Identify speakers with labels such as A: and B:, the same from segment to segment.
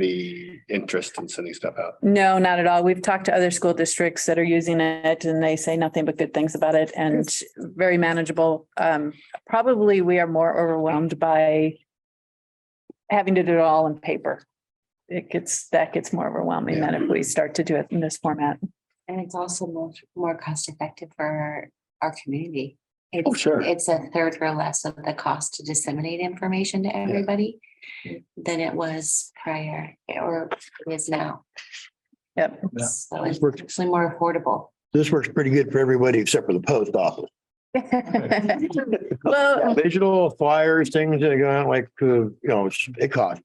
A: community interest in sending stuff out.
B: No, not at all. We've talked to other school districts that are using it and they say nothing but good things about it and very manageable. Um, probably we are more overwhelmed by having to do it all in paper. It gets, that gets more overwhelming than if we start to do it in this format.
C: And it's also more, more cost effective for our community.
A: Oh,
C: It's,
A: sure.
C: it's a third or less of the cost to disseminate information to everybody
B: Mm.
C: than it was prior eh, or is now.
B: Yep.
D: Yeah.
C: So it's actually more affordable.
D: This works pretty good for everybody except for the post office.
B: Well,
D: Digital flyers, things that go out like, uh, you know, it's- it costs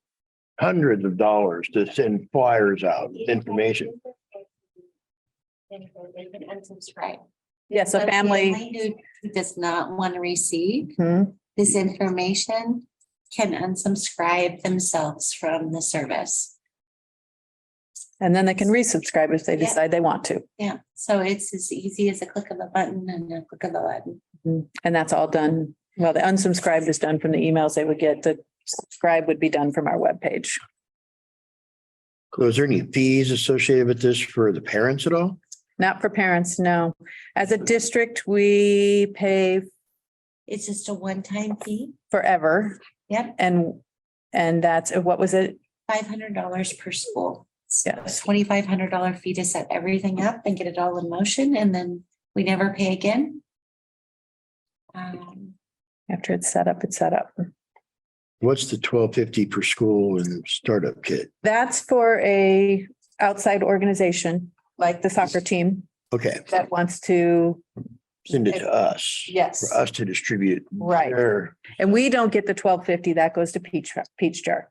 D: hundreds of dollars to send flyers out, information.
C: Right.
B: yes, a
C: So
B: family.
C: Who does not want to receive
B: Hmm.
C: this information can unsubscribe themselves from the service.
B: And then they can resubscribe if they
C: Yeah.
B: decide they want to.
C: Yeah, so it's as easy as a click of a button and a click of a button.
B: And that's all done. Well, the unsubscribed is done from the emails they would get. The subscribe would be done from our webpage.
D: So is there any fees associated with this for the parents at all?
B: Not for parents, no. As a district, we pay
C: It's just a one-time fee.
B: forever
C: Yep,
B: and, and that's, what was it?
C: five hundred dollars per school.
B: Yes.
C: Twenty-five hundred dollar fee to set everything up and get it all in motion and then we never pay again. Um,
B: After it's set up, it's set up.
D: What's the twelve fifty per school and startup kit?
B: That's for a outside organization, like the soccer team
D: Okay,
B: that wants to,
D: send it to us.
B: yes,
D: For us to distribute.
B: right.
D: Or
B: And we don't get the twelve fifty, that goes to Peach, Peach Jar.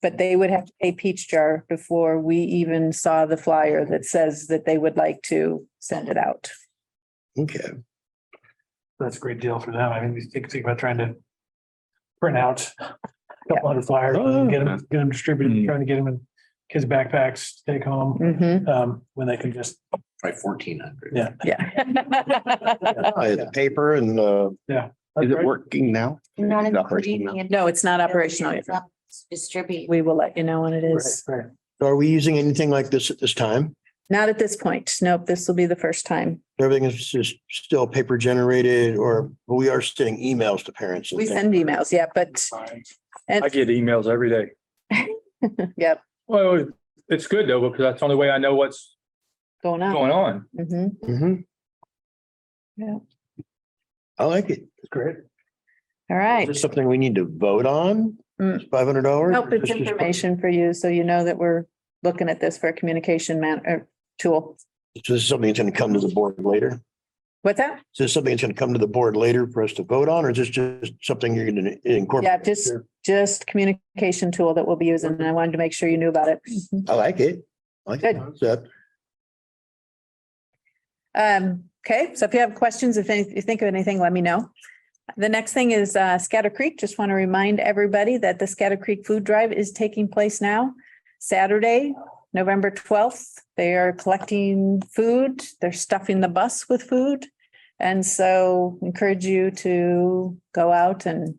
B: But they would have to pay Peach Jar before we even saw the flyer that says that they would like to send it out.
D: Okay,
E: That's a great deal for them. I mean, you think, think about trying to print out a couple hundred flyers, and get them, get them
A: Hmm.
E: distributed, trying to get them in kids' backpacks, take home,
B: Mhm,
E: um, when they can just,
F: By fourteen hundred.
E: yeah.
B: Oh, yeah.
D: I had the paper and, uh,
A: Is it working now?
C: Not
A: It's operational
C: including. the
B: No, it's not operational. yet.
C: It's not Distribute.
B: We will let you know when it
E: Right,
B: is.
E: right.
D: are we using anything like this at this time?
B: Not at this point. Nope, this will be the first time.
D: Everything is just still paper generated or we are sending emails to parents. and
B: We
D: things.
B: send emails, yeah, but,
G: I
B: and,
G: get emails every day.
B: yep,
G: Well, it's good though, because that's the only way I know what's
B: going on.
G: going on.
B: Mhm.
D: Mhm.
B: Yeah.
D: I like it.
E: It's great.
B: All right.
D: Is this something we need to vote on?
B: Mm.
D: Five hundred dollars?
B: Nope, it's information for you, so you know that we're looking at this for a communication man, uh, tool.
D: So this is something that's gonna come to the board later?
B: What's that?
D: Is this something that's gonna come to the board later for us to vote on, or is this just something you're gonna incorporate?
B: Yeah, just, just communication tool that we'll be using, and I wanted to make sure you knew about it.
D: I like it. I like the
B: Good.
D: concept.
B: Um, okay, so if you have questions, if any- if you think of anything, let me know. The next thing is uh, Scatter Creek. Just want to remind everybody that the Scatter Creek Food Drive is taking place now. Saturday, November twelfth, they are collecting food. They're stuffing the bus with food. And so encourage you to go out and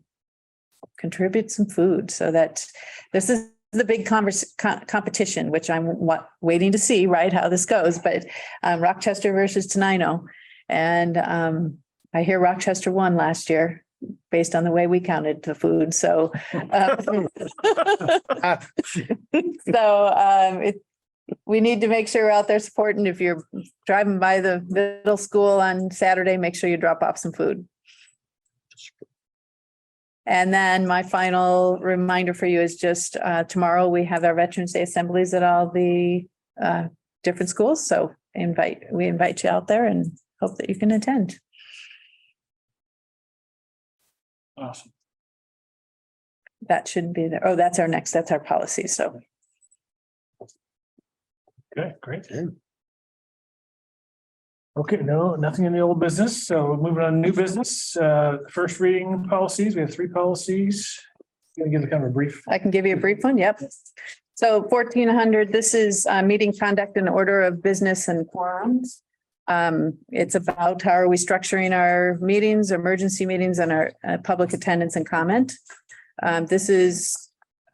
B: contribute some food so that this is the big converse, co- competition, which I'm wa- waiting to see, right, how this goes, but um, Rochester versus Tenino. And um, I hear Rochester won last year based on the way we counted the food. So, um, so um, it, we need to make sure we're out there supporting. If you're driving by the middle school on Saturday, make sure you drop off some food. And then my final reminder for you is just uh, tomorrow, we have our Veterans Day assemblies at all the uh, different schools. So invite, we invite you out there and hope that you can attend.
E: Awesome.
B: That shouldn't be there. Oh, that's our next, that's our policy. So
E: Okay, great. Okay, no, nothing in the old business. So moving on, to new business, uh, first reading policies. We have three policies. Gonna give it kind of a brief.
B: I can give you a brief one. Yep. So fourteen hundred, this is uh, meeting conduct and order of business and quorums. Um, It's about how are we structuring our meetings, emergency meetings and our uh, public attendance and comment. Um, This is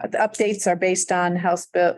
B: the updates are based on House Bill,